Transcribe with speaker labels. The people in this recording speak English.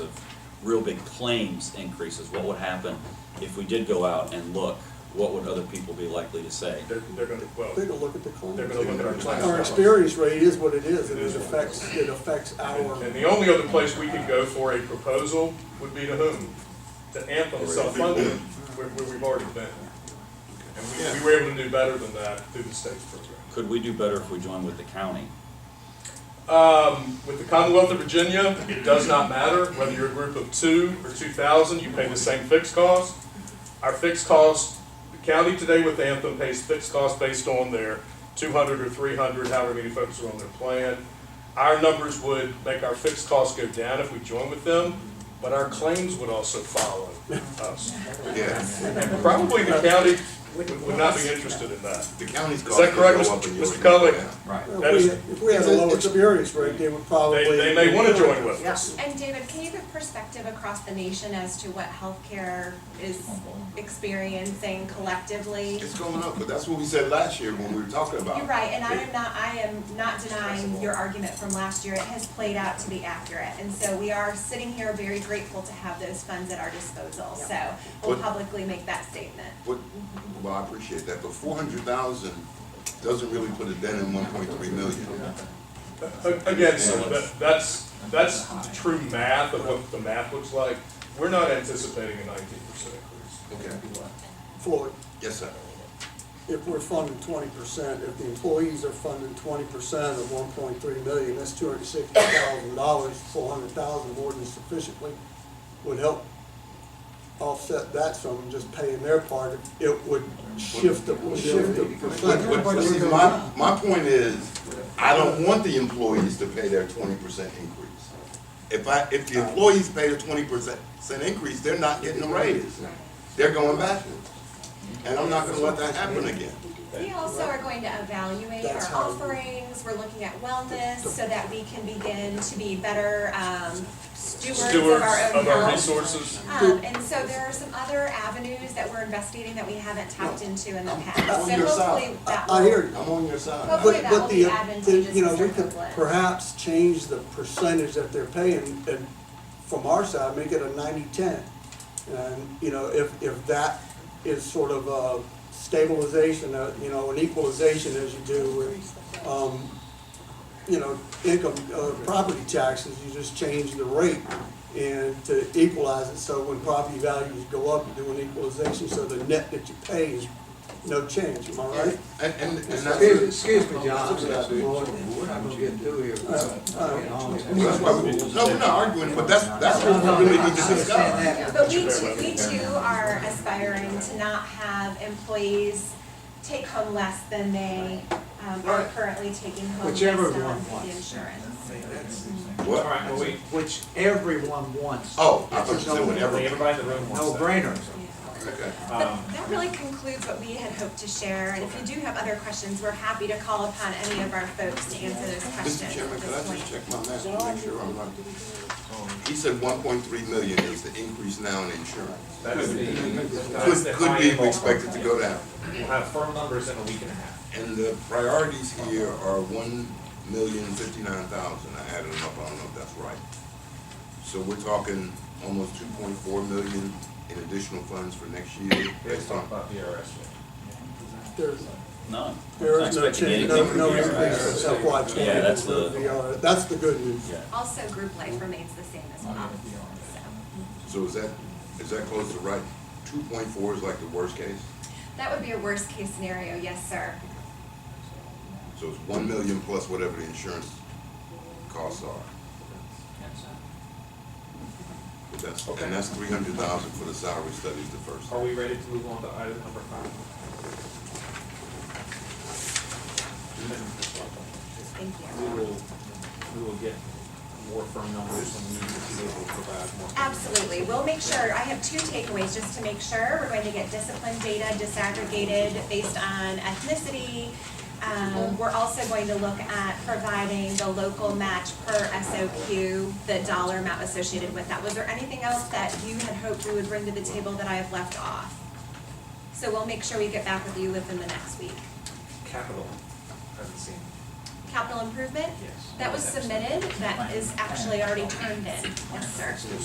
Speaker 1: real big claims increases, what would happen if we did go out and look? What would other people be likely to say?
Speaker 2: They're, they're gonna, well,
Speaker 3: Take a look at the
Speaker 2: they're
Speaker 3: claims.
Speaker 2: gonna look at our class.
Speaker 3: Our experience rate is what it is, and it affects, it affects
Speaker 2: And and
Speaker 3: our,
Speaker 2: the only other place we could go for a proposal would be to whom? To Anthem self-funded, where, where we've already been. And we, we were able to do better than that through the state's program.
Speaker 1: Could we do better if we joined with the county?
Speaker 2: Um, with the Commonwealth of Virginia, it does not matter whether you're a group of two or two thousand, you pay the same fixed cost. Our fixed cost, the county today with Anthem pays fixed cost based on their two hundred or three hundred, however many folks are on their plan. Our numbers would make our fixed costs go down if we join with them, but our claims would also follow us.
Speaker 4: Yes,
Speaker 2: And probably the county would would not be interested in that.
Speaker 4: the county's
Speaker 2: Is
Speaker 4: cost.
Speaker 2: that correct,
Speaker 4: will go up
Speaker 2: Mr.
Speaker 4: and yours
Speaker 2: Mr.
Speaker 4: will go
Speaker 2: Cully?
Speaker 4: down.
Speaker 1: Right.
Speaker 2: That
Speaker 3: if
Speaker 2: is-
Speaker 3: we, if we had a
Speaker 4: It's a-
Speaker 3: low
Speaker 4: it's a-
Speaker 3: experience rate, they would probably.
Speaker 2: They, they may wanna join with us.
Speaker 5: And David, can you give perspective across the nation as to what healthcare is experiencing collectively?
Speaker 4: It's going up, but that's what we said last year when we were talking about.
Speaker 5: You're
Speaker 4: it.
Speaker 5: right, and I am not, I am not denying your argument from last year, it has played out to be accurate. And so we are sitting here very grateful to have those funds at our disposal, so we'll
Speaker 4: What-
Speaker 5: publicly make that statement.
Speaker 4: What, well, I appreciate that, but four hundred thousand doesn't really put a dent in one point three million.
Speaker 2: A- Again, so that, that's, that's the true math of what the math looks like. We're not anticipating a nineteen percent increase.
Speaker 4: Okay,
Speaker 3: Floyd,
Speaker 4: yes, sir.
Speaker 3: if we're funding twenty percent, if the employees are funding twenty percent of one point three million, that's two hundred and sixty thousand dollars, four hundred thousand more than sufficiently would help offset that from just paying their part. It would shift the, would shift the
Speaker 4: But,
Speaker 3: percentage.
Speaker 4: but, but see, my, my point is, I don't want the employees to pay their twenty percent increase. If I, if the employees pay the twenty percent, increase, they're not getting a raise. They're going backwards. And I'm not gonna let that happen again.
Speaker 5: We also are going to evaluate
Speaker 3: That's
Speaker 5: our
Speaker 3: how-
Speaker 5: offerings, we're looking at wellness, so that we can begin to be better um, stewards of
Speaker 2: Stewards
Speaker 5: our own
Speaker 2: of our
Speaker 5: health.
Speaker 2: resources.
Speaker 5: Um, and so there are some other avenues that we're investigating that we haven't tapped into in the past,
Speaker 4: on
Speaker 5: so
Speaker 4: your side.
Speaker 5: hopefully that will.
Speaker 3: I hear you.
Speaker 4: I'm on your side.
Speaker 5: Well,
Speaker 3: But, but
Speaker 5: that will
Speaker 3: the,
Speaker 5: be
Speaker 3: the-
Speaker 5: advantageous
Speaker 3: you know,
Speaker 5: for
Speaker 3: we could
Speaker 5: Kirkland.
Speaker 3: perhaps change the percentage that they're paying and from our side, make it a ninety-ten. And, you know, if, if that is sort of a stabilization, uh, you know, an equalization as you do with, um, you know, income, uh, property taxes, you just change the rate and to equalize it, so when property values go up, you do an equalization, so the net that you pay is no change, am I right?
Speaker 4: And, and, and
Speaker 6: Excuse,
Speaker 4: that's,
Speaker 6: excuse me, John, I'm
Speaker 4: That's what I
Speaker 6: just
Speaker 4: do.
Speaker 6: bored and we're not gonna get through here.
Speaker 4: that's why, we- no, we're not arguing, but that's, that's what we really need to discuss.
Speaker 5: But we too, we too are aspiring to not have employees take home less than they um, are
Speaker 6: Right.
Speaker 5: currently taking home based on
Speaker 6: Whichever
Speaker 5: the
Speaker 6: one
Speaker 5: insurance.
Speaker 6: wants.
Speaker 4: What?
Speaker 7: Alright, well, we,
Speaker 6: Which everyone wants.
Speaker 4: Oh, I thought you said whatever.
Speaker 7: everybody in the room Um, wants
Speaker 6: No
Speaker 7: that.
Speaker 6: brainer.
Speaker 5: Yeah.
Speaker 4: Okay.
Speaker 2: Um,
Speaker 5: But that really concludes what we had hoped to share, and if you do have other questions, we're happy to call upon any of our folks to answer those questions
Speaker 4: Mr.
Speaker 5: at
Speaker 4: Chairman, could I
Speaker 5: this
Speaker 4: just
Speaker 5: point.
Speaker 4: check my math to make sure I'm right? He said one point three million is the increase now in insurance.
Speaker 7: That is the- that's the
Speaker 4: Could, could be
Speaker 7: high end.
Speaker 4: expected to go down.
Speaker 7: We'll have firm numbers in a week and a half.
Speaker 4: And the priorities here are one million fifty-nine thousand, I added them up, I don't know if that's right. So we're talking almost two point four million in additional funds for next year
Speaker 7: Let's
Speaker 4: based on.
Speaker 7: talk about the IRS.
Speaker 3: There's-
Speaker 1: No.
Speaker 3: There
Speaker 1: Not
Speaker 3: is no
Speaker 1: expecting
Speaker 3: change, no,
Speaker 1: anything.
Speaker 3: no
Speaker 4: Yeah.
Speaker 3: increase in FY twenty.
Speaker 1: Yeah, that's the-
Speaker 3: That's the good news.
Speaker 1: Yeah.
Speaker 5: Also, group life remains the same as well, so.
Speaker 4: So is that, is that close to right? Two point four is like the worst case?
Speaker 5: That would be a worst-case scenario, yes, sir.
Speaker 4: So it's one million plus whatever the insurance costs are. But that's, and that's three hundred thousand for the salary studies the first.
Speaker 7: Are we ready to move on to item number five?
Speaker 5: Thank
Speaker 7: We
Speaker 5: you.
Speaker 7: will, we will get more firm numbers when we are able to provide more. firm numbers.
Speaker 5: Absolutely, we'll make sure, I have two takeaways, just to make sure, we're going to get discipline data disaggregated based on ethnicity. Um, we're also going to look at providing the local match per SOQ, the dollar amount associated with that. Was there anything else that you had hoped we would bring to the table that I have left off? So we'll make sure we get back with you within the next week.
Speaker 7: Capital, haven't seen.
Speaker 5: Capital improvement?
Speaker 7: Yes.
Speaker 5: That was submitted, that is actually already turned in, yes, sir.